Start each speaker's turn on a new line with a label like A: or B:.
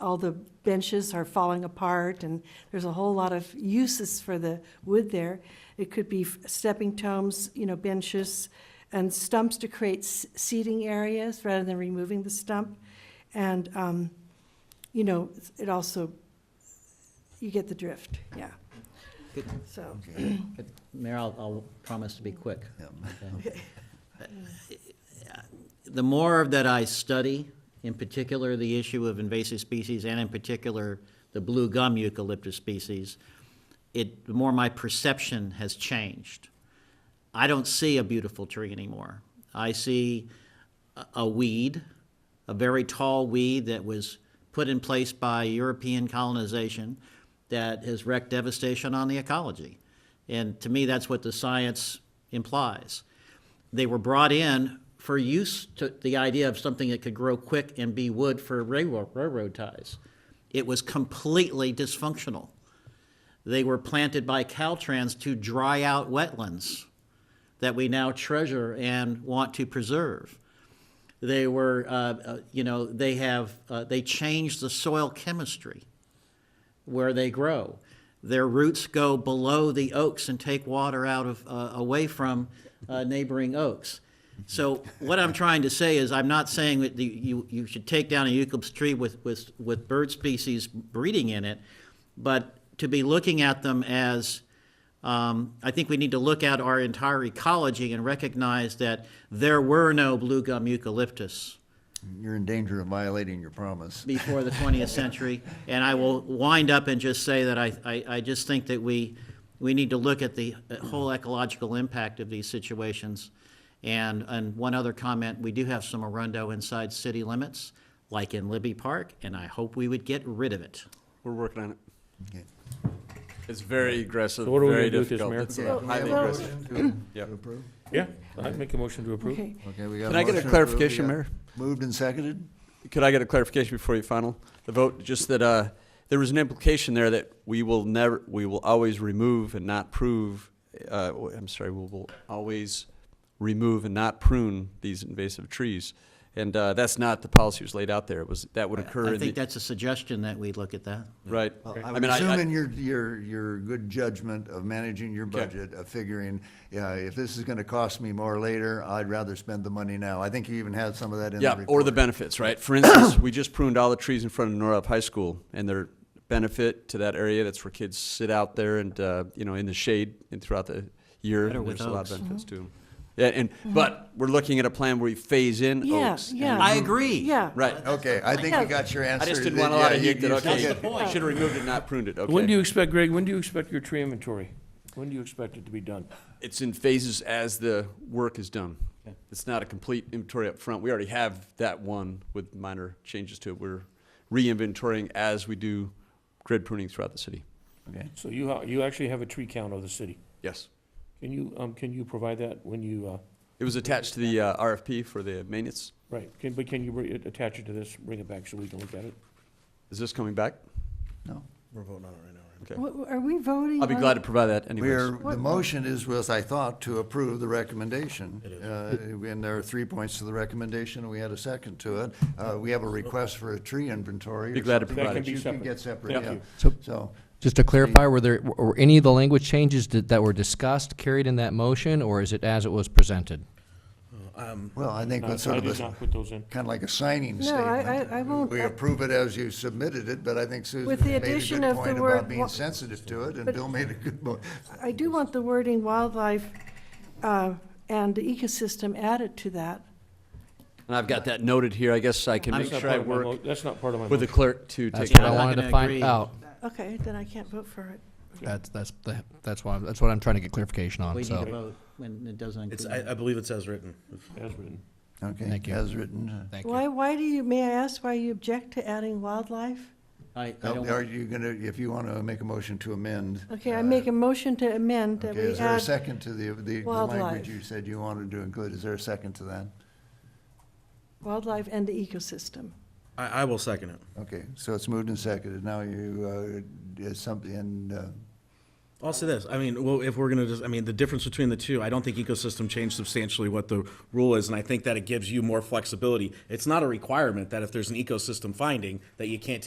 A: all the benches are falling apart, and there's a whole lot of uses for the wood there. It could be f- stepping tomes, you know, benches, and stumps to create s- seating areas rather than removing the stump. And, um, you know, it also, you get the drift, yeah.
B: Good.
A: So,
B: Good. Mayor, I'll, I'll promise to be quick. Okay. The more that I study, in particular, the issue of invasive species, and in particular, the blue gum eucalyptus species, it, the more my perception has changed. I don't see a beautiful tree anymore. I see a- a weed, a very tall weed that was put in place by European colonization that has wreaked devastation on the ecology. And to me, that's what the science implies. They were brought in for use to the idea of something that could grow quick and be wood for railroad, railroad ties. It was completely dysfunctional. They were planted by Caltrans to dry out wetlands that we now treasure and want to preserve. They were, uh, uh, you know, they have, uh, they changed the soil chemistry where they grow. Their roots go below the oaks and take water out of, uh, away from uh, neighboring oaks. So what I'm trying to say is, I'm not saying that the- you, you should take down a eucalyptus tree with, with, with bird species breeding in it, but to be looking at them as, um, I think we need to look at our entire ecology and recognize that there were no blue gum eucalyptus
C: You're in danger of violating your promise.
B: before the 20th century. And I will wind up and just say that I, I, I just think that we, we need to look at the uh, whole ecological impact of these situations. And, and one other comment, we do have some arundo inside city limits, like in Libby Park, and I hope we would get rid of it.
D: We're working on it.
C: Okay.
D: It's very aggressive,
E: So what are we
D: very
E: gonna do with
D: difficult.
E: this,
D: It's
E: Mayor?
C: Okay,
D: uh,
C: we have
D: highly
C: a
D: aggressive.
C: motion to-
D: Yeah.
C: to approve?
E: Yeah, I'd make a motion to approve.
A: okay.
C: Okay, we got
D: Can
C: a
D: I get a
C: motion to approve. We
D: clarification,
C: got-
D: Mayor?
C: Moved and seconded?
D: Could I get a clarification before you final the vote? Just that uh, there was an implication there that we will never, we will always remove and not prove. Uh, w- I'm sorry, we will always remove and not prune these invasive trees, and uh, that's not the policy was laid out there. It was that would occur
B: I
D: in
B: think
D: the
B: that's a suggestion that we look at that.
D: right.
C: Well,
D: I
C: I'm
D: mean, I- I-
C: assuming your, your, your good judgment of managing your
D: Okay.
C: budget, of figuring, yeah, if this is gonna cost me more later, I'd rather spend the money now. I think you even had some of that in the
D: Yeah,
C: report.
D: or the benefits, right? For instance, we just pruned all the trees in front of Norup High School, and their benefit to that area, that's where kids sit out there and, uh, you know, in the shade and throughout the year.
B: Better
D: and
B: with
D: There's a lot
B: oaks. Mm-hmm.
D: of benefits to them. Yeah, and, but we're looking at a plan where you phase in
A: Yeah,
D: oaks. and-
A: yeah.
B: I agree.
A: Yeah.
D: Right.
C: Okay, I think you
A: Yeah.
C: got your answer.
D: I just didn't want a lot of heat that, okay,
B: That's the point.
D: should have removed it, not pruned it, okay?
E: When do you expect, Greg, when do you expect your tree inventory? When do you expect it to be done?
D: It's in phases as the work is done. It's not a complete inventory up front. We already have that one with minor changes to it. We're re-inventorying as we do grid pruning throughout the city.
E: So you, ha- you actually have a tree count of the city.
D: Yes.
E: Can you, um, can you provide that when you, uh,
D: It was attached to the uh, RFP for the maintenance.
E: right, can, but can you re- attach it to this, bring it back so we can look at it?
D: Is this coming back?
A: W- Are we voting?
D: I'll be
A: on-
D: glad to provide that anyways.
C: We're, the motion is, was, I thought, to approve the recommendation. Uh, And there are three points to the recommendation, and we had a second to it. Uh, We have a request for a tree inventory.
D: Be
C: or
D: glad to
C: something
D: provide
E: That can
C: You
E: be
C: can
E: separate.
C: get separate,
E: Thank
C: yeah.
E: you.
C: So,
F: Just to clarify, were there, were any of the language changes that, that were discussed carried in that motion, or is it as it was presented?
C: well, I think
E: No,
C: that's sort
E: I
C: of a,
E: did not put those in.
C: kind of like a signing
A: No, I-
C: statement.
A: I- I won't-
C: We approve it as you submitted it, but I think Susan
A: With the
C: made a
A: addition
C: good
A: of the
C: point
A: word
C: about
A: wa-
C: being sensitive to it, and Bill made a good point.
A: I do want the wording wildlife uh, and ecosystem added to that.
D: And I've got that noted here. I guess I can
B: I'm
D: make
E: That's
D: sure
E: not
D: I
E: part of my mo-
D: work
E: That's not part of my
D: with the
E: motion.
D: clerk to
F: That's
D: take
B: I'm
F: what I
B: not
D: that.
F: wanted
B: gonna
F: to find
B: agree.
F: out.
A: Okay, then I can't vote for it.
F: That's, that's, the that's why, that's what I'm trying to get clarification
B: We
F: on,
B: need to
F: so,
B: vote when it doesn't
G: It's,
B: include.
G: I, I believe it's as written.
E: As written.
C: Okay,
F: Thank you.
C: as written.
F: thank you.
A: Why, why do you, may I ask why you object to adding wildlife?
B: I, I don't,
C: Are you gonna, if you want to make a motion to amend?
A: Okay, I make a motion to amend that
C: Uh, Okay,
A: we
C: is there a
A: add.
C: second to the, the- the
A: wildlife.
C: language you said you wanted to include? Is there a second to that?
A: Wildlife and the ecosystem.
G: I, I will second it.
C: Okay, so it's moved and seconded. Now you, uh, is something, and, uh,
G: I'll say this, I mean, well, if we're gonna just, I mean, the difference between the two, I don't think ecosystem changed substantially what the rule is, and I think that it gives you more flexibility. It's not a requirement that if there's an ecosystem finding, that you can't